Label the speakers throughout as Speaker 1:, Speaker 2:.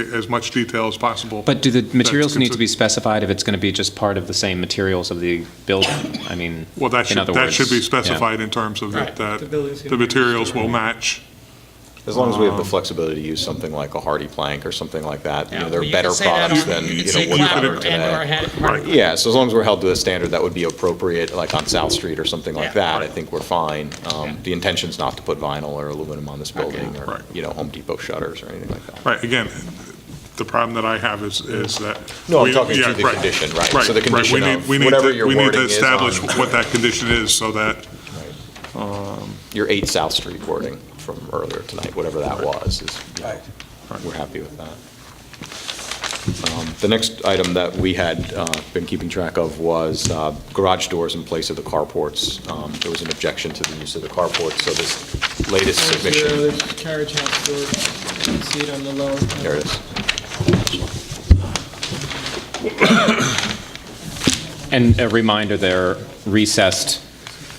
Speaker 1: as much detail as possible.
Speaker 2: But do the materials need to be
Speaker 1: consi-
Speaker 2: specified if it's going to be just part of the same materials of the building? I mean,
Speaker 1: Well, that
Speaker 2: in
Speaker 1: should,
Speaker 2: other
Speaker 1: that should be
Speaker 2: words, yeah.
Speaker 1: specified in terms of that,
Speaker 3: Right.
Speaker 1: that
Speaker 3: The building's gonna
Speaker 1: the
Speaker 3: be-
Speaker 1: materials will match.
Speaker 4: As long as we have
Speaker 5: Um,
Speaker 4: the flexibility to use something like a hardy plank or something like that, you know,
Speaker 5: Well,
Speaker 4: they're
Speaker 5: you
Speaker 4: better
Speaker 5: could say that
Speaker 4: products
Speaker 5: on-
Speaker 4: than,
Speaker 5: could
Speaker 4: you
Speaker 5: say
Speaker 4: know, what we
Speaker 5: clapper
Speaker 4: have
Speaker 5: and/or
Speaker 4: today.
Speaker 5: hand-
Speaker 1: Right.
Speaker 4: Yeah, so as long as we're held to a standard that would be appropriate, like on South Street or something like
Speaker 5: Yeah.
Speaker 4: that, I think we're fine. Um, The intention's not to put vinyl or aluminum on this building
Speaker 1: Right.
Speaker 4: or, you know, Home Depot shutters or anything like that.
Speaker 1: Right, again, the problem that I have is, is that.
Speaker 4: No, I'm
Speaker 1: we-
Speaker 4: talking to
Speaker 1: yeah,
Speaker 4: the condition, right. So
Speaker 1: we
Speaker 4: the condition
Speaker 1: need-
Speaker 4: of
Speaker 1: we need
Speaker 4: whatever
Speaker 1: to-
Speaker 4: your
Speaker 1: We need
Speaker 4: wording
Speaker 1: to
Speaker 4: is
Speaker 1: establish
Speaker 4: on-
Speaker 1: what that condition is so that,
Speaker 4: Your 8 South Street wording from earlier tonight, whatever that was, is, you know, we're happy with that. Um, The next item that we had uh, been keeping track of was uh, garage doors in place of the carports. Um, There was an objection to the use of the carports, so this latest submission,
Speaker 3: There's Carriage house door, you can see it on the lower.
Speaker 4: there it is.
Speaker 2: And a reminder, they're recessed,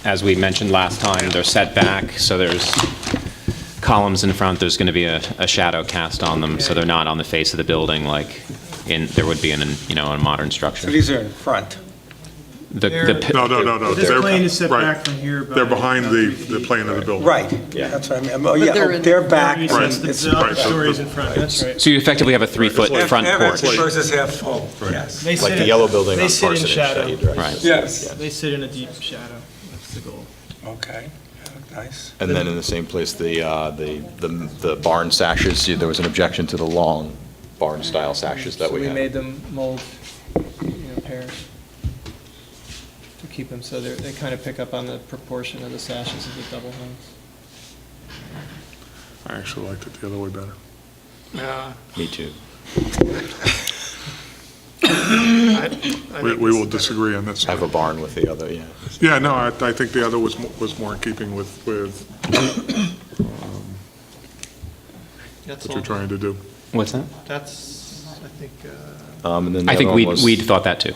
Speaker 2: as we mentioned last time, they're set back, so there's columns in front, there's going to be a, a shadow cast on them, so they're not on the face of the building like in, there would be in, an- you know, in a modern structure.
Speaker 6: So these are in front.
Speaker 2: The- the pi-
Speaker 1: no, no, no, no.
Speaker 3: This
Speaker 1: they're-
Speaker 3: plane is set
Speaker 1: right.
Speaker 3: back from here by
Speaker 1: They're behind
Speaker 3: about
Speaker 1: the,
Speaker 3: three
Speaker 1: the
Speaker 3: feet.
Speaker 1: plane of the building.
Speaker 6: Right, that's what I mean. Oh, yeah,
Speaker 7: they're
Speaker 6: oh,
Speaker 7: in-
Speaker 6: they're back.
Speaker 3: Recess,
Speaker 1: Right.
Speaker 3: the-
Speaker 6: It's-
Speaker 3: The
Speaker 1: Right, so
Speaker 3: stories
Speaker 1: the-
Speaker 3: in front, that's right.
Speaker 2: So you effectively have a three-foot
Speaker 1: Right.
Speaker 2: front
Speaker 6: half empty
Speaker 2: porch.
Speaker 6: versus half full, yes.
Speaker 3: They sit
Speaker 4: Like the
Speaker 3: in-
Speaker 4: yellow building
Speaker 3: they
Speaker 4: on
Speaker 3: sit in
Speaker 4: Parsonage
Speaker 3: shadow.
Speaker 4: that you addressed.
Speaker 2: Right.
Speaker 6: Yes.
Speaker 3: They sit in a deep shadow, that's the goal.
Speaker 6: Okay, Yeah, nice.
Speaker 4: And then in the same place, the, uh, the, the the barn sashes, there was an objection to the long barn-style sashes that we
Speaker 3: So we made
Speaker 4: had.
Speaker 3: them mold, you know, pairs to keep them, so they're, they kind of pick up on the proportion of the sashes of the double hung.
Speaker 1: I actually liked it the other way better.
Speaker 5: Yeah,
Speaker 4: Me too.
Speaker 5: I- I think
Speaker 1: We, we will
Speaker 5: it's better.
Speaker 1: disagree on this.
Speaker 4: Have a barn with the other, yeah.
Speaker 1: Yeah, no, I, I think the other was, mo- was more in keeping with, with
Speaker 3: That's
Speaker 1: what you're
Speaker 3: all,
Speaker 1: trying to do.
Speaker 2: What's that?
Speaker 3: that's, I think, uh,
Speaker 4: Um, and then the
Speaker 2: I think
Speaker 4: other one
Speaker 2: we,
Speaker 4: was-
Speaker 2: we'd thought that too.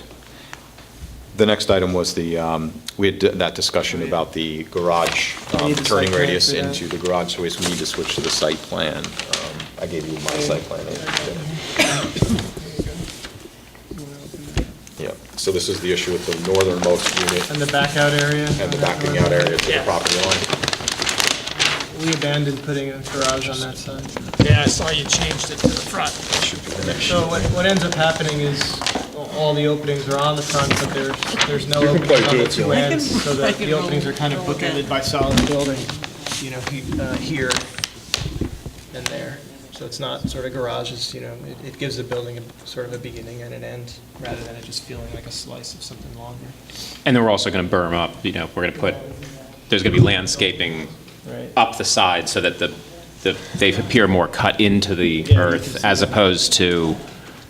Speaker 4: The next item was the, um, we had that discussion about the garage
Speaker 3: Oh, We
Speaker 4: um,
Speaker 3: need the site
Speaker 4: turning
Speaker 3: plan
Speaker 4: radius
Speaker 3: for that.
Speaker 4: into the garage, so we need to switch to the site plan. Um, I gave you my site plan. Yeah, so this is the issue with the northernmost unit
Speaker 3: and the back out area.
Speaker 4: and the backing out area to the property line.
Speaker 3: We abandoned putting a garage on that side.
Speaker 5: Yeah, I saw you changed it to the front.
Speaker 4: Should be the next sheet.
Speaker 3: So what, what ends up happening is all the openings are on the front, but there's, there's no
Speaker 4: play
Speaker 3: openings on the
Speaker 4: dudes,
Speaker 3: two ends, so
Speaker 7: I
Speaker 3: that
Speaker 7: can
Speaker 3: the
Speaker 7: roll-
Speaker 3: openings are kind of
Speaker 7: roll that.
Speaker 3: bookended by solid building, you know, he- uh, here and there. So it's not sort of garages, you know, it, it gives the building a sort of a beginning and an end, rather than it just feeling like a slice of something longer.
Speaker 2: And then we're also going to berm up, you know, we're going to put, there's going to be landscaping
Speaker 3: Right.
Speaker 2: up the side so that the, the they appear more cut into the
Speaker 3: Yeah, you can
Speaker 2: earth
Speaker 3: see
Speaker 2: as
Speaker 3: that.
Speaker 2: opposed to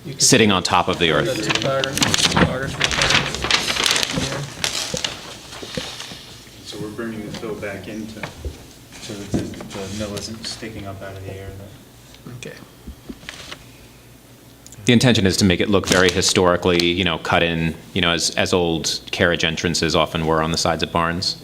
Speaker 3: You can-
Speaker 2: sitting on top of the
Speaker 3: The
Speaker 2: earth.
Speaker 3: topography, topography.
Speaker 8: So we're bringing the fill back into, so that the the mill isn't sticking up out of the air then?
Speaker 3: Okay.
Speaker 2: The intention is to make it look very historically, you know, cut in, you know, as, as old carriage entrances often were on the sides of barns.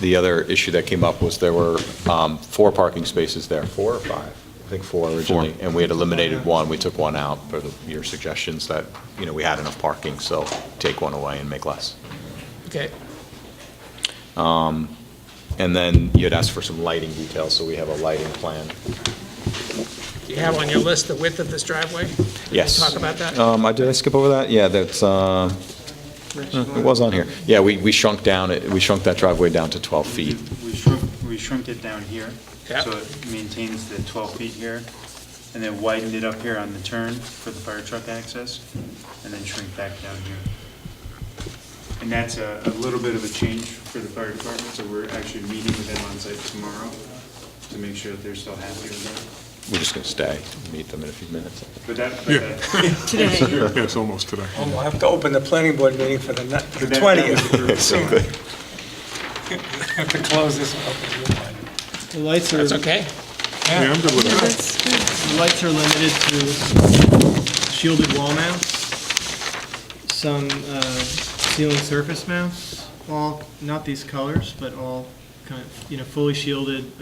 Speaker 4: The other issue that came up was there were um, four parking spaces there, four or five? I think four originally, and we had eliminated one, we took one out for the- your suggestions that, you know, we had enough parking, so take one away and make less.
Speaker 5: Okay.
Speaker 4: And then you had asked for some lighting details, so we have a lighting plan.
Speaker 5: Do you have on your list the width of this driveway?
Speaker 4: Yes.
Speaker 5: Talk about that?
Speaker 4: Um, I- Did I skip over that? Yeah, that's, uh, it was on here. Yeah, we we shrunk down, it- we shrunk that driveway down to 12 feet.
Speaker 8: We shrunk, we shrunk it down here.
Speaker 5: Yeah.
Speaker 8: So it maintains the 12 feet here, and then widened it up here on the turn for the fire truck access, and then shrink back down here. And that's a, a little bit of a change for the fire department, so we're actually meeting with them on site tomorrow to make sure that they're still happy with
Speaker 4: We're just going to stay, meet them in a few minutes.
Speaker 8: that. But that,
Speaker 1: Yeah.
Speaker 8: but that.
Speaker 7: Today,
Speaker 1: Yeah, it's almost today.
Speaker 6: Oh, We'll have to open the planning board meeting for the ni- the
Speaker 8: but that- that was
Speaker 6: 20th.
Speaker 8: approved, so-
Speaker 6: Have to close this one.
Speaker 3: The lights are,
Speaker 5: That's okay?
Speaker 1: Yeah, I'm good with
Speaker 7: yeah,
Speaker 1: that.
Speaker 7: that's good.
Speaker 3: The lights are limited to shielded wall mounts, some uh, ceiling surface mounts, all, not these colors, but all kind of, you know, fully shielded